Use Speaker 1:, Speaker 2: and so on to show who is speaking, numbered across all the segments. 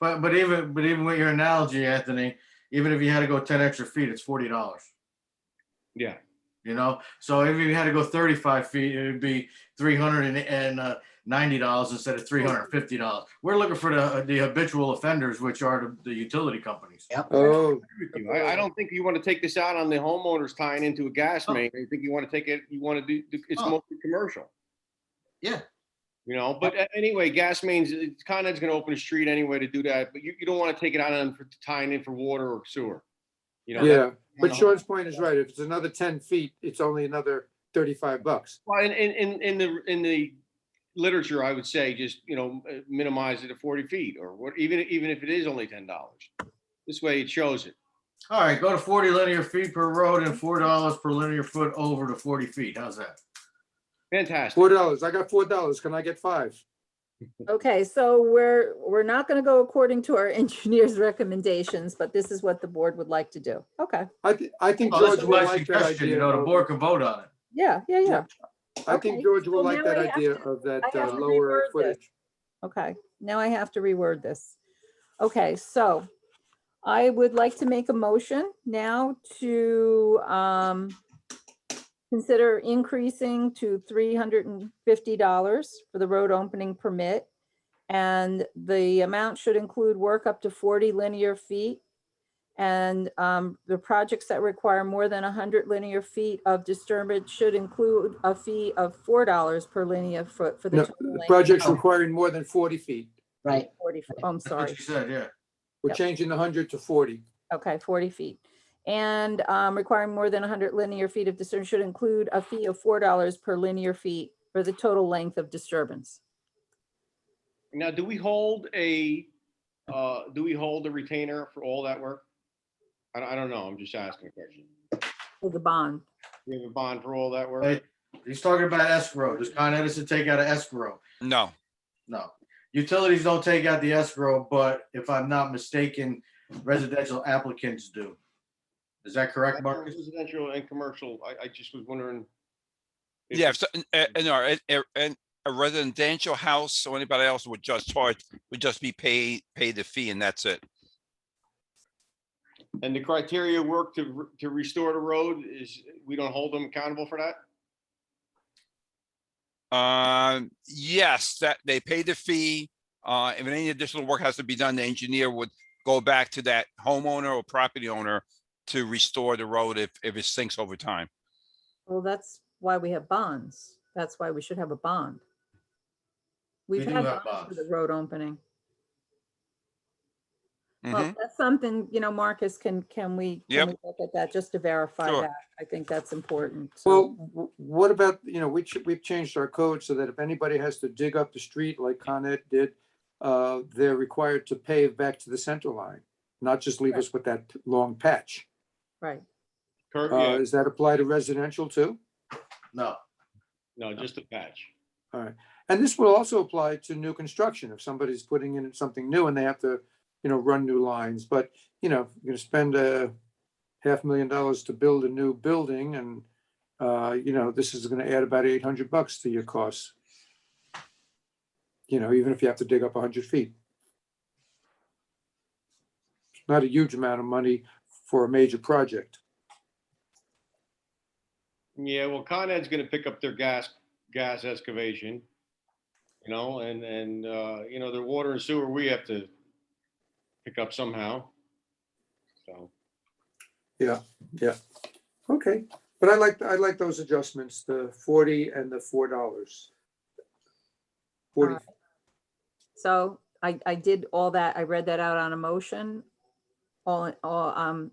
Speaker 1: But, but even, but even with your analogy, Anthony, even if you had to go ten extra feet, it's forty dollars.
Speaker 2: Yeah.
Speaker 1: You know, so if you had to go thirty-five feet, it would be three hundred and uh, ninety dollars instead of three hundred and fifty dollars. We're looking for the, uh, the habitual offenders, which are the, the utility companies.
Speaker 3: Oh,
Speaker 2: with you. I, I don't think you want to take this out on the homeowners tying into a gas
Speaker 1: Oh.
Speaker 2: main. I think you want to take it, you want to do, do- it's
Speaker 1: Oh.
Speaker 2: mostly commercial.
Speaker 1: Yeah.
Speaker 2: You know, but a- anyway, gas mains, it's Con Ed's gonna open a street anyway to do that, but you, you don't want to take it out on for tying in for water or sewer. You know,
Speaker 3: yeah,
Speaker 2: No.
Speaker 3: but
Speaker 1: Uh-huh.
Speaker 3: Sean's point is right. If it's another ten feet, it's only another thirty-five bucks.
Speaker 2: Well, in, in, in, in the, in the literature, I would say just, you know, uh, minimize it to forty feet or what, even, even if it is only ten dollars. This way it shows it.
Speaker 1: All right, go to forty linear feet per road and four dollars per linear foot over to forty feet. How's that?
Speaker 2: Fantastic.
Speaker 3: Four dollars. I got four dollars. Can I get five?
Speaker 4: Okay, so we're, we're not going to go according to our engineer's recommendations, but this is what the board would like to do. Okay,
Speaker 3: I thi- I think
Speaker 1: Well,
Speaker 3: George
Speaker 1: this is
Speaker 3: will
Speaker 1: my
Speaker 3: like that
Speaker 1: suggestion,
Speaker 3: idea.
Speaker 1: you know, the
Speaker 3: of-
Speaker 1: board can vote on it.
Speaker 4: yeah, yeah, yeah.
Speaker 3: I
Speaker 4: Okay,
Speaker 3: think George
Speaker 4: so
Speaker 3: will like
Speaker 4: now
Speaker 3: that
Speaker 4: I have
Speaker 3: idea
Speaker 4: to-
Speaker 3: of that
Speaker 4: I have
Speaker 3: uh,
Speaker 4: to
Speaker 3: lower
Speaker 4: reword this.
Speaker 3: footage.
Speaker 4: Okay, now I have to reword this. Okay, so I would like to make a motion now to um consider increasing to three hundred and fifty dollars for the road opening permit. And the amount should include work up to forty linear feet. And um, the projects that require more than hundred linear feet of disturbance should include a fee of four dollars per linear foot for the
Speaker 3: No,
Speaker 4: total length.
Speaker 3: Projects
Speaker 1: No.
Speaker 3: requiring more than forty feet.
Speaker 5: Right,
Speaker 4: 40, feet. Oh, I'm
Speaker 1: That's what
Speaker 4: sorry.
Speaker 1: you said, yeah.
Speaker 3: We're
Speaker 4: Yep.
Speaker 3: changing the hundred to forty.
Speaker 4: Okay, 40 feet. And um, requiring more than 100 linear feet of disturbance should include a fee of $4 per linear feet for the total length of disturbance.
Speaker 2: Now, do we hold a, uh, do we hold a retainer for all that work? I, don't- I don't know, I'm just asking a question.
Speaker 4: for The bond.
Speaker 2: We have a bond for all that
Speaker 1: Right.
Speaker 2: work?
Speaker 1: He's talking about escrow. Does Con Edison take out an escrow?
Speaker 6: No,
Speaker 1: No. Utilities don't take out the escrow, but if I'm not mistaken, residential applicants do. Is that correct, Marcus?
Speaker 2: Residential and commercial, I, I just was wondering. if-
Speaker 6: yeah, if, so- uh, uh, no, a- a- an- a residential house or anybody else would just charge, would just be paid, pay the fee and that's it.
Speaker 2: And the criteria work to, re- to restore the road is, we don't hold them accountable for that?
Speaker 6: Um, yes, that they pay the fee. Uh, if any additional work has to be done, the engineer would go back to that homeowner or property owner to restore the road if, if it sinks over time.
Speaker 4: Well, that's why we have bonds. That's why we should have a bond.
Speaker 1: We
Speaker 4: We've
Speaker 1: do
Speaker 4: had
Speaker 1: have
Speaker 4: bonds for
Speaker 1: bonds.
Speaker 4: the road opening. Well,
Speaker 6: Mhm.
Speaker 4: that's something, you know, Marcus, can, can we?
Speaker 6: Yep.
Speaker 4: can we Look at that just to verify
Speaker 6: Sure.
Speaker 4: that. I think that's important. so-
Speaker 3: Well, w- what about, you know, we, ch- we've changed our code so that if anybody has to dig up the street like Con Ed did, uh, they're required to pave back to the center line, not just leave us with that long patch.
Speaker 4: Right.
Speaker 2: Kurt,
Speaker 3: Uh,
Speaker 2: yeah,
Speaker 3: does that apply to residential too?
Speaker 1: No.
Speaker 2: no, just a patch.
Speaker 3: And this will also apply to new construction. If somebody's putting in something new and they have to, you know, run new lines, but, you know, you're gonna spend a half million dollars to build a new building and, uh, you know, this is gonna add about eight hundred bucks to your costs. You know, even if you have to dig up hundred feet. It's Not a huge amount of money for a major project.
Speaker 2: Yeah, well, Con Ed's gonna pick up their gas, gas excavation. You know, and, and, uh, you know, their water and sewer, we have to pick up somehow. So,
Speaker 3: Okay, but I like, I like those adjustments, the forty and the four dollars. Forty
Speaker 4: Alright. So I, I did all that. I read that out on a motion. All, in- all, um,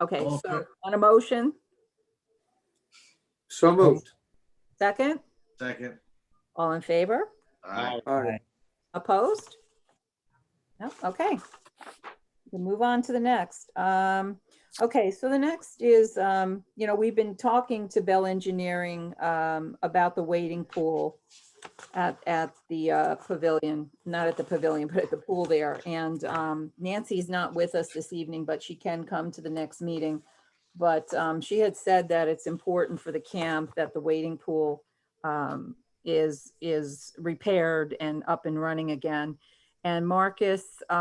Speaker 4: okay,
Speaker 1: All in
Speaker 4: so on a motion,
Speaker 3: So moved.
Speaker 4: second,
Speaker 1: Second.
Speaker 4: all in favor,
Speaker 1: All right.
Speaker 3: All right.
Speaker 4: opposed? No, okay. We'll move on to the next. Um, okay, so the next is, um, you know, we've been talking to Bell Engineering, um, about the waiting pool at, at the uh, pavilion, not at the pavilion, but at the pool there. And um, Nancy's not with us this evening, but she can come to the next meeting. But um, she had said that it's important for the camp that the waiting pool um, is, is repaired and up and running again. And Marcus,